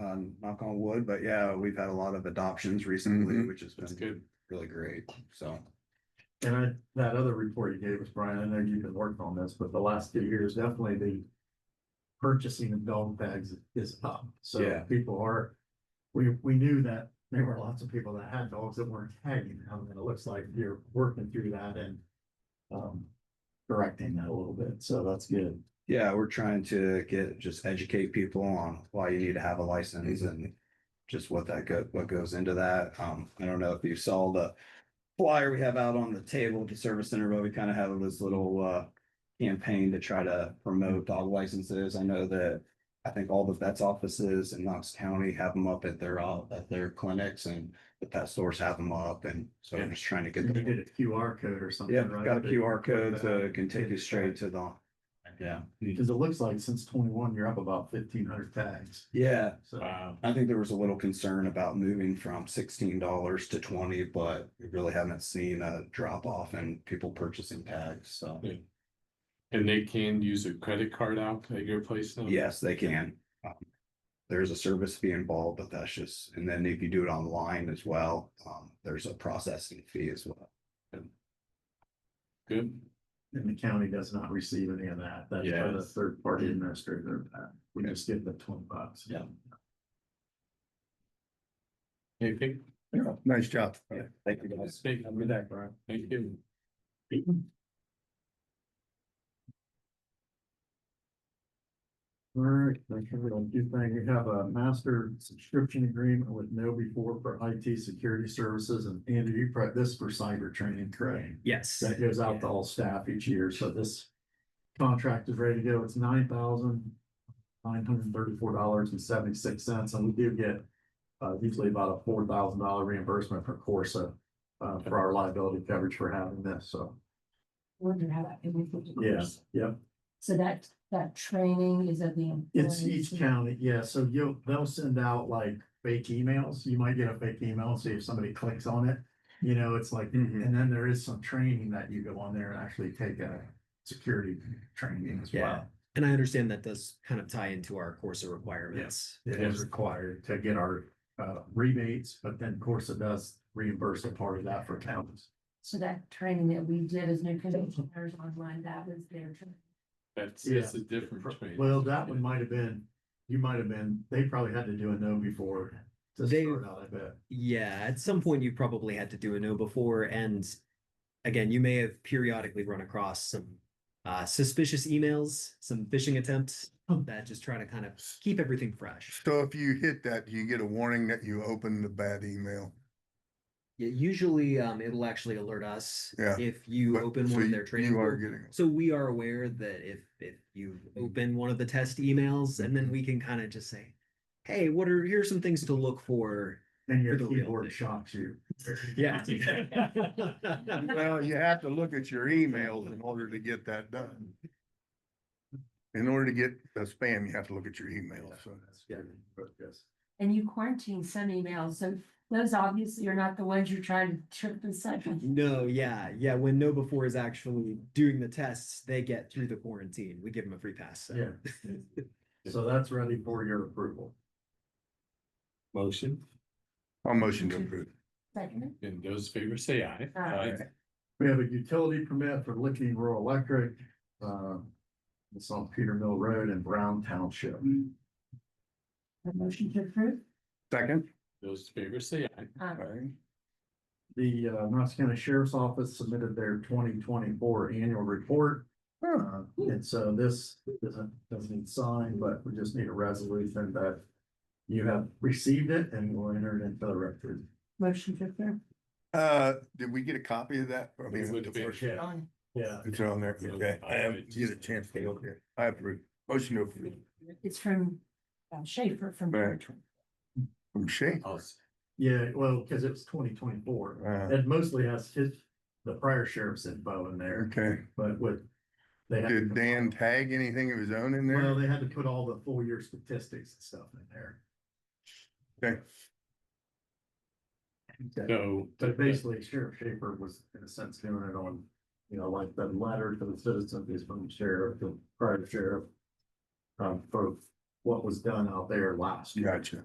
um, knock on wood, but yeah, we've had a lot of adoptions recently, Mhm. which has Mm-hmm. That's been good. really great, so. And I, that other report you gave us, Brian, I know you've been working on this, but the last few years, definitely the purchasing of dog tags is up. Yeah. So people are, we, we knew that there were lots of people that had dogs that weren't tagging them, and it looks like you're working through that and um, correcting that a little bit. So that's good. Yeah, we're trying to get, just educate people on why you need to have a license Mm-hmm. and just what that go, what goes into that. Um, I don't know if you saw the flyer we have out on the table at the service center, but we kind of have this little, uh, campaign to try to promote dog licenses. I know that I think all the vets offices in Knox County have them up at their, uh, at their clinics and the pet stores have them up. And so I'm just trying to get And you the did a QR code or something, Yeah, right? got a That- QR code, so it can take you straight to the, yeah. Because it looks like since twenty-one, you're up about fifteen hundred tags. Yeah, So Wow. I think there was a little concern about moving from sixteen dollars to twenty, but we really haven't seen a drop off in people purchasing tags, so. Yeah. And they can use a credit card out at your place now? Yes, they can. Um, There's a service fee involved, but that's just, and then if you do it online as well, um, there's a processing fee as well. Good. And the county does not receive any of that. That's for the Yes. third party administrator. uh, We just give them twenty bucks. Yeah. Anything? Yeah, nice job. Thank you guys. Thank Have a good you. day, Brian. Thank you. All right, thank you. We'll do thing. We have a master subscription agreement with Know Before for IT security services and Andrew, you prep this for cyber training, correct? Yes, That goes out to all staff each year. So this contract is ready to go. It's nine thousand nine hundred thirty-four dollars and seventy-six cents, and we do get uh, usually about a four thousand dollar reimbursement per Corsa uh, for our liability coverage for having this. So, wonder how that. can be put to yeah, course. yeah. So that, that training is at the. It's employees. each county, yeah, so you'll, they'll send out like fake emails, you might get a fake email, and see if somebody clicks on it. You know, it's like, Mhm. and then there is some training that you go on there and actually take a security training as well. and I understand that does kind of tie into our Corsa requirements. It is required to get our uh rebates, but then Corsa does reimburse a part of that for counties. So that training that we did as new commissioners online, that was their training. That's, that's a different. trade. Well, that one might have been, you might have been, they probably had to do a no before to They- start out, I bet. Yeah, at some point you probably had to do a no before, and again, you may have periodically run across some uh, suspicious emails, some phishing attempts that just try to kind of keep everything fresh. So if you hit that, you get a warning that you opened the bad email. Yeah, usually um, it'll actually alert us Yeah, if you But- open so one of you- their training. You are portals. getting, So we are aware that if if you open one of the test emails, and Mm-hmm. then we can kind of just say, "Hey, what are here's some things to look for." And your For the real keyboard thing. shocks you. Yeah. well, you have to look at your emails in order to get that done. In order to get a spam, you have to look at your email, so. Yeah, but yes. And you quarantine some emails, so those obviously are not the ones you're trying to trip the second. No, yeah, yeah. When No Before is actually doing the tests, they get through the quarantine. We give them a free pass. So. Yeah. So that's ready for your approval. Motion, I'll motion to approve. Second, uh, and those favors say aye. Aye. We have a utility permit for Licking Rural Electric. uh, It's on Peter Mill Road in Brown Township. a motion to approve? Second. Those favors say aye. Uh, The uh, Knox County Sheriff's Office submitted their twenty twenty-four annual report. Uh, And so this doesn't, doesn't need signed, but we just need a resolution that you have received it and will enter it into the record. motion to approve? Uh, did we get a copy of that? I It mean, would the be- first- Aye. Yeah. It's on there, okay. I haven't get a chance to look at it. I approve. Motion to approve. It's from uh, Schaefer from. Right. From Shane. I'll- Yeah, well, because it was twenty twenty-four. Uh, It mostly has his, the prior sheriff's info in there, okay. but what. they had- Did Dan tag anything of his own in Well, there? they had to put all the full year statistics and stuff in there. Okay. So. uh, But basically Sheriff Schaefer was in a sense doing it on, you know, like the letter to the citizens is from the sheriff, the prior sheriff. Um, for what was done out there last year. Gotcha.